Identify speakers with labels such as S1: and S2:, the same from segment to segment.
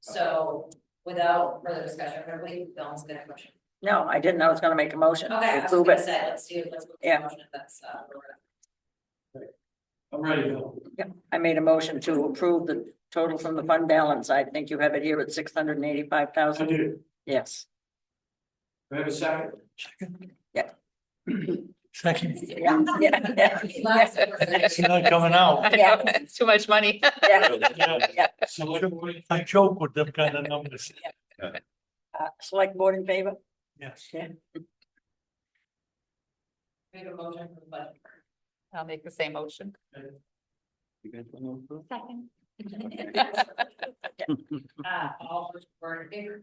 S1: So without further discussion, everybody, Dylan's gonna motion.
S2: No, I didn't. I was gonna make a motion.
S1: Okay, I was
S2: Move
S1: gonna
S2: it.
S1: say, let's do, let's. move the
S2: Yeah.
S1: Motion if that's, uh, where we're at.
S3: I'm ready, Bill.
S2: I made a motion to approve the total from the fund balance. I think you have it here at six hundred and eighty-five
S3: I
S2: thousand.
S3: do. Do
S2: Yes.
S3: I have a second?
S4: Second,
S2: Yeah. Yeah.
S1: Last person.
S4: it's not coming out.
S2: Yeah.
S5: It's too much money.
S2: Yeah.
S4: Yeah,
S3: So what do we-
S4: I choke with them kind of numbers,
S2: Uh, Select board in favor?
S4: yes.
S1: Make a motion for the budget.
S5: I'll make the same motion.
S1: Uh, all those who are in favor,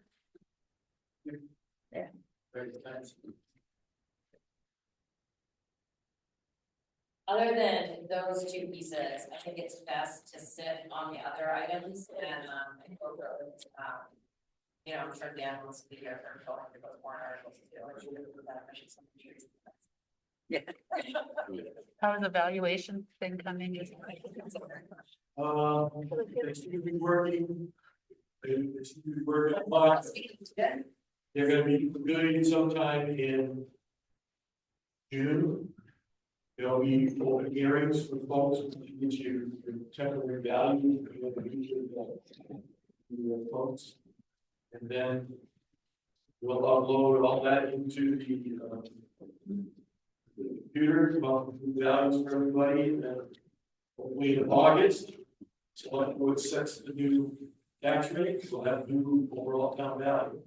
S3: Very nice.
S1: other than those two pieces, I think it's best to sit on the other items and, um, and go through, um. You know, I'm sure Dan wants to be here for going through those warrant articles, you know, which you would do that, I should send you.
S5: How is the valuation thing coming?
S3: Um, they seem to be working. They they seem to be working, but they're gonna be doing it sometime in June. There'll be open hearings for folks who need to temporary value. you know, the region that- the Folks. And then we'll upload all that into the, uh, the computer, about the values for everybody, and then hopefully in August, select board sets the new tax rate, we'll have new overall town value.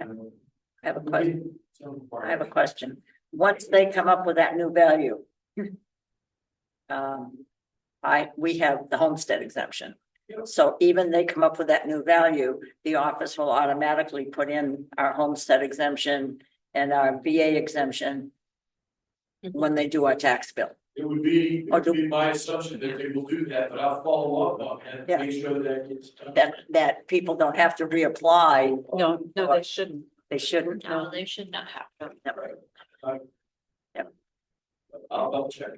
S3: Um,
S2: I have a question.
S3: so
S2: I have a question. Once they come up with that new value. Um, I, we have the homestead exemption.
S3: Yep.
S2: So even they come up with that new value, the office will automatically put in our homestead exemption and our VA exemption.
S5: Mm-hmm.
S2: When they do our tax bill.
S3: It would be, it
S2: Or
S3: would
S2: do-
S3: be my assumption that they will do that, but I'll follow up on that,
S2: Yeah.
S3: and make sure that it's done.
S2: That, that people don't have to reapply.
S5: No, no, they shouldn't.
S2: They shouldn't.
S5: No, they should not have.
S2: Never.
S3: I'll double check.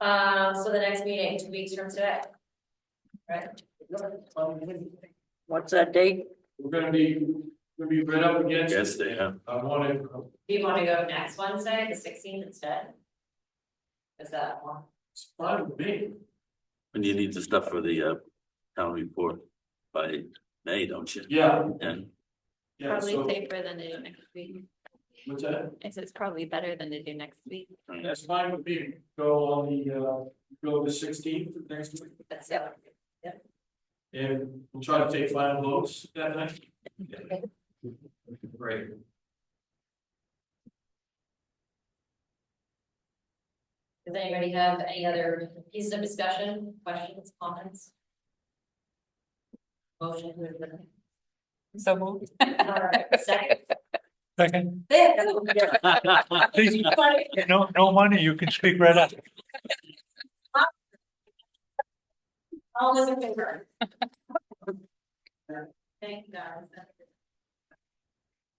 S1: Um, so the next meeting, two weeks from today. Right?
S2: What's that date?
S3: We're gonna be, we're gonna be right up against.
S6: Yes, they
S3: it.
S6: are.
S3: I wanna,
S1: Do you wanna go next Wednesday, the sixteenth instead? Is that one?
S3: it's fine with me,
S6: And you need the stuff for the uh town report by May, don't you?
S3: yeah,
S6: And
S3: yeah, so,
S5: safer than to do next week.
S3: what's that?
S5: It's, it's probably better than to do next week.
S3: That's fine with me, go on the, uh, go the sixteenth next week,
S1: That's the other.
S3: and we'll try to take final votes that night. Great.
S1: Does anybody have any other pieces of discussion, questions, comments? Motion to adjourn.
S5: So moved.
S1: Alright, second.
S4: Second,
S1: There.
S4: please, uh, no, no money, you can speak right up.
S1: All those in favor? Thank you, guys. uh,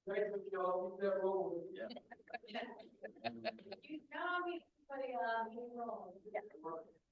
S1: You know, we, putting, um, you know.